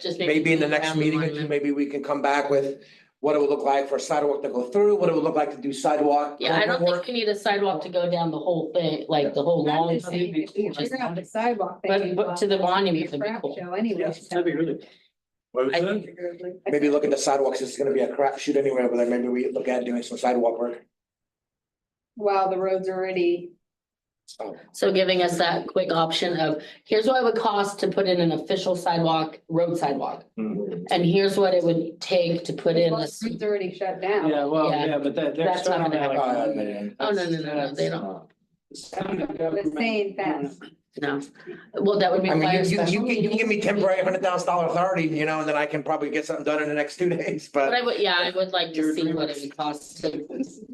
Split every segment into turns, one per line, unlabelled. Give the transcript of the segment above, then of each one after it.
just maybe.
maybe in the
leave
next
around
meeting, or two,
monument.
maybe we can come back with what it would look like for a sidewalk to go through, what it would look like to do sidewalk.
Yeah, I don't
work.
think you need a sidewalk to go down the whole thing, like the whole
I'm
long.
just saying, if we figure out the sidewalk.
But-
thing,
but to the monument would be
crap
cool.
show Anyway.
Yes, that'd be really.
What was
I
that?
Figuratively.
Maybe look at the sidewalks, it's gonna be a crapshoot anywhere, but then maybe we look at doing some sidewalk work.
While the road's already,
So,
So giving us that quick option of, here's what it would cost to put in an official sidewalk, road sidewalk.
Mhm.
And here's what it would take to put in
well,
a.
the road's already shut down.
Yeah, well,
Yeah.
yeah, but that, they're
That's not
starting
gonna
to like.
happen. Oh, yeah, yeah, yeah.
Oh, no, no, no, no, they don't.
The same fence.
No, well, that would
I mean, you,
require.
you, you
special
can, you can give me
meeting.
temporary hundred thousand dollar authority, you know, and then I can probably get something done in the next two days,
But
but.
I would, yeah, I would like to see what it would cost to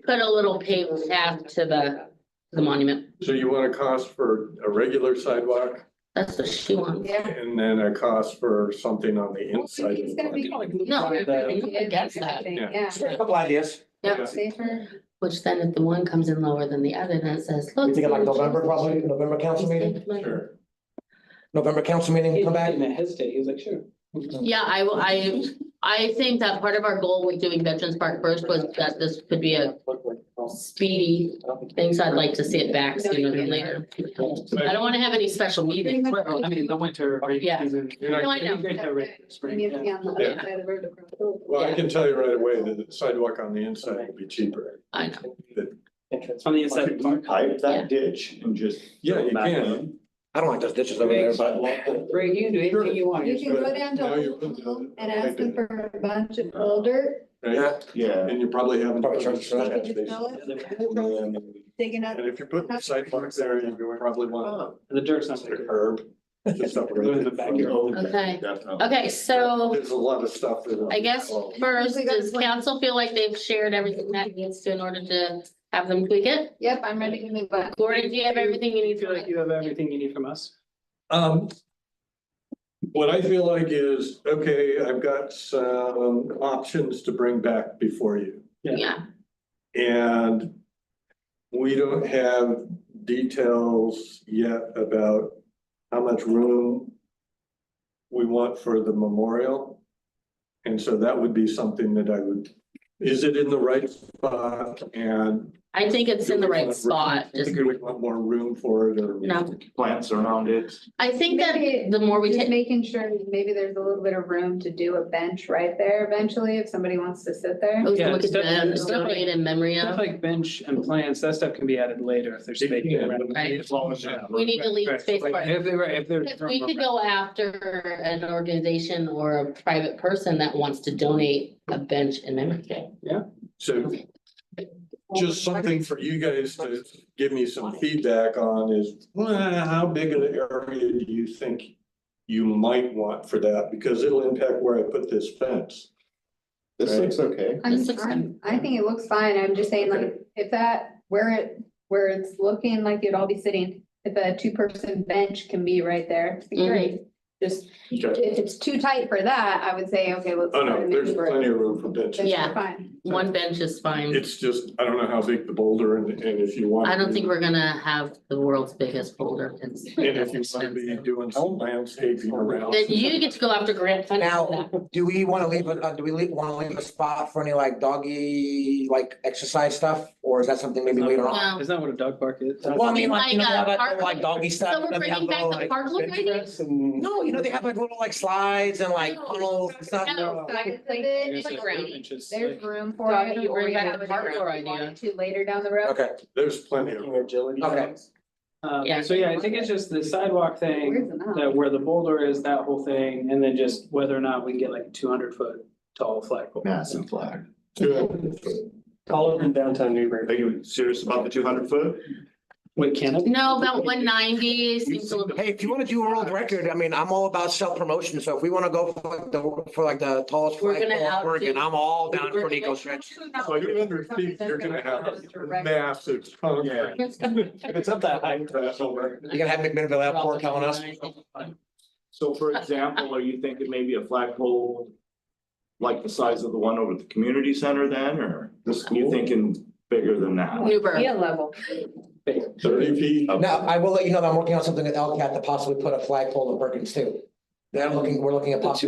put a little paved path to the, the monument.
So you want a cost for a regular sidewalk
That's what she wants.
Yeah.
and then a cost for something on the inside.
It's gonna be called-
No, I
It is
guess that,
everything,
Yeah.
Yeah.
Just got a Couple ideas.
Yeah.
Safer.
which then if the one comes in lower than the other, then it says, look.
We thinking like November, probably, November council meeting,
Sure.
November council meeting, come back.
And it hesitated, he was like, sure.
Yeah, I, will- I, I think that part of our goal with doing Veterans Park first was that this could be a speedy thing, so I'd like to see it back sooner than later. I don't wanna have any special meetings.
Well, I mean, the winter. break
Yeah.
season, you're not-
No, I know.
it'd be great to have a
We
spring,
need to be
yeah.
on the
Yeah.
other side of the road to cross over.
Well, I can tell you right away that the sidewalk on the inside will be cheaper.
I know,
It's on the inside of the park.
Pipe
Yeah.
that ditch and just.
Yeah, you
back
can.
in.
I don't like those ditches over there, but.
Greg, you can do anything you want.
You can go down to
Now you're-
Old Home and ask them for a bunch of old dirt,
Right?
Yeah.
And you probably haven't.
Probably charge for
they
that.
can just fill it,
And then
digging up.
And if you put the sidewalk there, you probably want
Oh.
The dirt's not
a
there.
curb. to separate
Go in the
it
back
from-
here.
Okay.
Definitely.
okay, so.
There's a lot of stuff that. Oh.
I guess first, does council feel like they've shared everything that needs to in order to have them tweak it?
Yep, I'm ready to move on.
Gordon, do you have everything you
You
need
feel
to?
like you have everything you need from us?
Um. What I feel like is, okay, I've got some options to bring back before you.
Yeah,
And we don't have details yet about how much room we want for the memorial. And so that would be something that I would, is it in the right spot and?
I think it's in the right spot, just,
Do we want more room for it or?
no,
Plants around it.
I think that
Maybe-
the more we
Just
take,
making sure that maybe there's a little bit of room to do a bench right there eventually if somebody wants to sit there.
we
Yeah,
could
it's definitely- it's
donate in memory
Stuff
of,
like bench and plants, that stuff can be added later if there's space.
Yeah.
Right.
As long as. you have-
we need to leave
Right,
space for
right,
it.
If they, right, if
If we could go after an organization or a private person that wants to donate a bench in memory.
So just something for you guys to give me some feedback on is, well, how big an area do you think you might want for that? Because it'll impact where I put this fence.
This
Right.
looks okay.
I'm,
This looks
I'm, I think it looks fine, I'm just saying like, if that, where it, where it's looking like you'd all be sitting, if a two-person bench can be right there, it'd be
Mm-hmm.
great. Just,
Okay.
if it's too tight for that, I would say, okay, let's.
Oh,
try to
no,
make
there's
it work.
plenty of room for benches.
Benches are
Yeah.
Fine,
One bench is fine.
It's just, I don't know how big the boulder and, and if you want.
I don't
to-
think we're gonna have the world's biggest boulder. It's-
And if you want to be doing some landscaping around.
Then you get to go after grant funding for
Now-
that.
Do we wanna leave, a- uh, do we leave, wanna leave a spot for any like doggy, like exercise stuff, or is that something maybe later on?
No.
It's not what a dog park is.
Well, I mean, like, you know, they have
Like, uh,
that, like doggy stuff.
So we're
and they have
bringing back
little,
the
like-
park look, I think?
No, you know, they have like little like slides and like
No.
tunnels and stuff.
No.
So I could put it in
There's like
like-
playground.
benches,
there's
like-
room for
Doggy,
it,
you
or
bring
you
back
have
the
it around
parkour
if you
idea.
wanted to later down the road.
Okay,
There's plenty of room.
okay.
Um,
Yeah.
so yeah, I think it's just the sidewalk
Where's
thing,
the knob?
that where the boulder is, that whole thing, and then just whether or not we can get like two hundred foot tall flagpole.
Massive flag.
All over in downtown
Are
Newbury.
you serious about the two hundred foot?
Wait, can it?
No, about one ninety seems a little.
Hey, if you wanna do a world record, I mean, I'm all about self-promotion, so if we wanna go for like the, for like the tallest
We're gonna
flagpole in
outdo-
Oregon, I'm all down for an eco stretch.
Two hundred feet, you're gonna have massive.
Yeah.
If it's up that high.
That's over.
You're gonna have McMinnville Airport calling us.
So for example, are you thinking maybe a flagpole? Like the size of the one over at the community center then, or you thinking bigger than that?
Newburgh.
Yeah, level.
Thirty feet.
Now, I will let you know that I'm working on something at LCAT to possibly put a flagpole in Perkins too. They're looking, we're looking at possibly